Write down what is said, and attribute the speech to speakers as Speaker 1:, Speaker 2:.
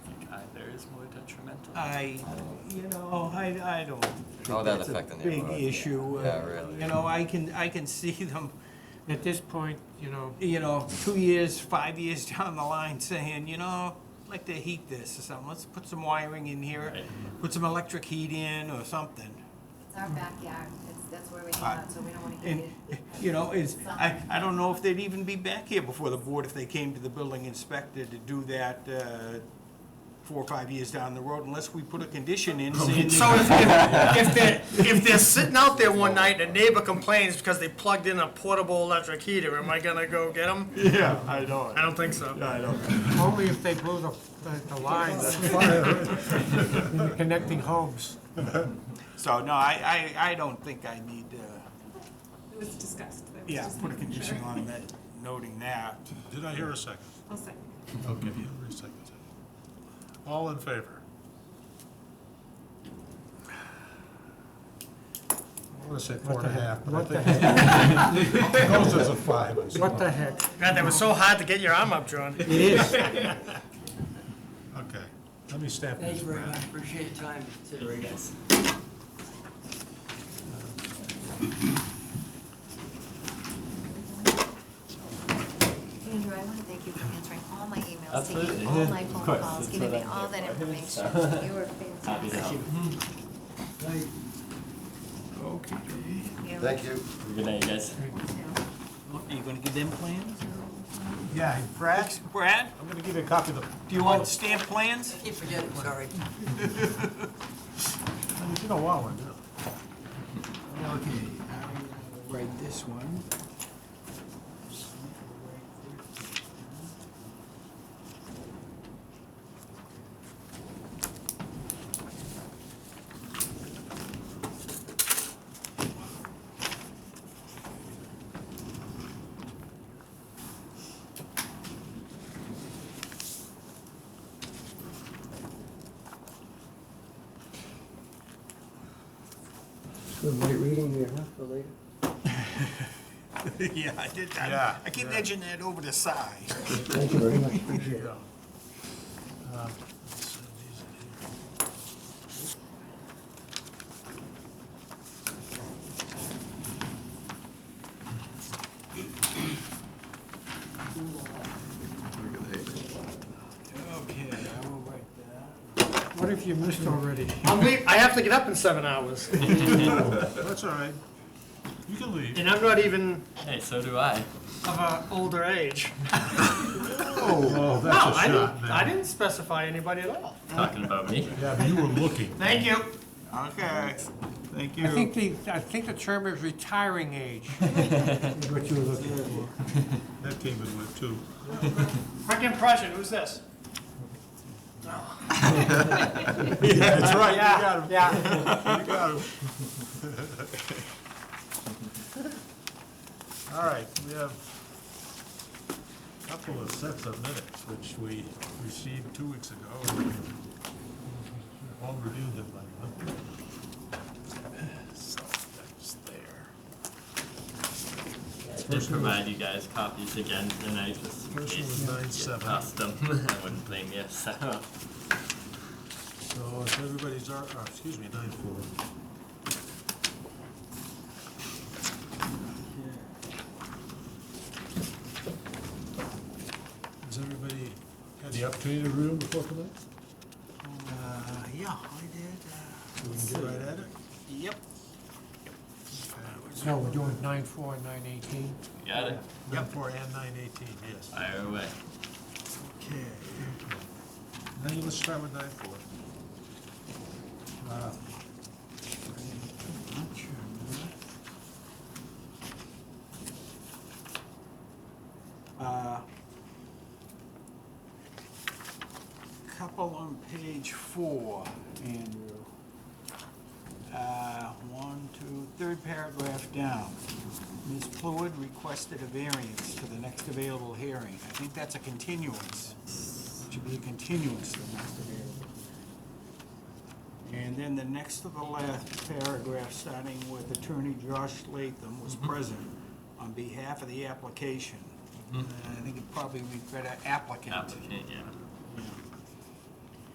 Speaker 1: uh, is more detrimental.
Speaker 2: Uh,
Speaker 3: I, you know, I, I don't
Speaker 4: How
Speaker 3: think
Speaker 4: would Oh, that
Speaker 3: that's a
Speaker 4: affect the
Speaker 3: big
Speaker 4: neighborhood?
Speaker 3: issue. uh,
Speaker 4: Yeah, really.
Speaker 3: You know, I can, I can see them,
Speaker 1: At this point, you know,
Speaker 3: you know, two years, five years down the line saying, you know, I'd like to heat this or something, let's put some wiring in here, put some electric heat in or something.
Speaker 5: It's our backyard, it's, that's where we hang out, so we don't wanna get
Speaker 3: And,
Speaker 5: it.
Speaker 3: you know, is, I, I don't know if they'd even be back here before the board if they came to the building inspector to do that, uh, four or five years down the road, unless we put a condition in saying.
Speaker 6: So if, if, if they're, if they're sitting out there one night and a neighbor complains because they plugged in a portable electric heater, am I gonna go get them?
Speaker 3: Yeah, I know.
Speaker 6: I don't think so.
Speaker 3: I know.
Speaker 1: only if they blew the, the- the lines in the connecting homes.
Speaker 3: So, no, I, I, I don't think I need, uh,
Speaker 7: It was discussed. That was
Speaker 3: yeah,
Speaker 7: just-
Speaker 3: put a condition on that, noting that.
Speaker 8: Did I hear a second?
Speaker 7: I'll second.
Speaker 8: Okay, Hillary seconded it. All in favor? I want to say four and a half, but I
Speaker 1: What the
Speaker 8: think
Speaker 1: heck?
Speaker 8: those is a five. I'm
Speaker 1: What
Speaker 8: sorry.
Speaker 1: the heck?
Speaker 6: God, that was so hard to get your arm up, John.
Speaker 1: It is.
Speaker 8: Okay, let me stamp
Speaker 2: Thank
Speaker 8: this.
Speaker 2: you very much, appreciate your time and consideration.
Speaker 5: Andrew, I wanna thank you for answering all my emails,
Speaker 9: That's what it
Speaker 5: taking
Speaker 9: is.
Speaker 5: all my
Speaker 9: Of
Speaker 5: phone
Speaker 9: course,
Speaker 5: calls,
Speaker 9: that's
Speaker 5: giving
Speaker 9: what
Speaker 5: me
Speaker 9: I'm
Speaker 5: all that
Speaker 9: here for.
Speaker 5: information. You were
Speaker 9: Happy to
Speaker 5: fantastic.
Speaker 9: help.
Speaker 3: Okay.
Speaker 5: Thank
Speaker 9: Good night, you guys.
Speaker 3: Are you gonna give them plans?
Speaker 8: Yeah,
Speaker 3: Brad? Brad,
Speaker 8: I'm going to give you a copy of the,
Speaker 3: do you want stamped plans?
Speaker 2: Keep forgetting, sorry.
Speaker 8: you don't want one, do you?
Speaker 3: Okay, I'll write this one. Yeah, I did, I,
Speaker 8: Yeah,
Speaker 3: I keep edging that over the side.
Speaker 8: There you go. Um, let's send these in here.
Speaker 3: Okay, I will write that.
Speaker 1: What if you missed already?
Speaker 6: I'm leave, I have to get up in seven hours,
Speaker 8: That's all right. You can leave.
Speaker 6: and I'm not even
Speaker 9: Hey, so do I.
Speaker 6: of a older age.
Speaker 8: Oh,
Speaker 6: No,
Speaker 8: that's
Speaker 6: I didn't, I didn't specify anybody at all.
Speaker 9: Talking about me.
Speaker 8: Yeah, but you were looking.
Speaker 6: Thank you.
Speaker 3: Okay, thank you.
Speaker 1: I think the, I think the term is retiring age. What you were looking for.
Speaker 8: That came in with two.
Speaker 6: Quick impression, who's this?
Speaker 8: That's right,
Speaker 6: Yeah, yeah.
Speaker 8: You got him. All right, we have a couple of sets of minutes, which we received two weeks ago. and All reviewed them by now. So that's there.
Speaker 9: I did provide you guys copies again, and I just in
Speaker 8: First one
Speaker 9: case
Speaker 8: was
Speaker 9: you
Speaker 8: nine
Speaker 9: get
Speaker 8: seven.
Speaker 9: Lost them. I wouldn't blame you. So
Speaker 8: So if everybody's, ar- oh, excuse me, nine four.
Speaker 3: Uh,
Speaker 8: Has everybody had the opportunity to read them before tonight?
Speaker 3: Uh, yeah, I did. uh,
Speaker 8: So we can get right at it?
Speaker 3: Yep.
Speaker 1: No, we're doing nine four and nine eighteen.
Speaker 9: you got it.
Speaker 8: Nine four and nine eighteen, yes.
Speaker 9: Fire away.
Speaker 8: Okay. Now you let's start with nine four. Uh,
Speaker 3: Uh, Couple on page four, Andrew. Uh, One, two, third paragraph down. Ms. Pluid requested a variance to the next available hearing. I think that's a continuance. Should be a continuance to the next available. And then the next to the last paragraph, starting with Attorney Josh Latham was present on behalf of the application. And I think it probably would be better applicant.
Speaker 9: Applicant, yeah.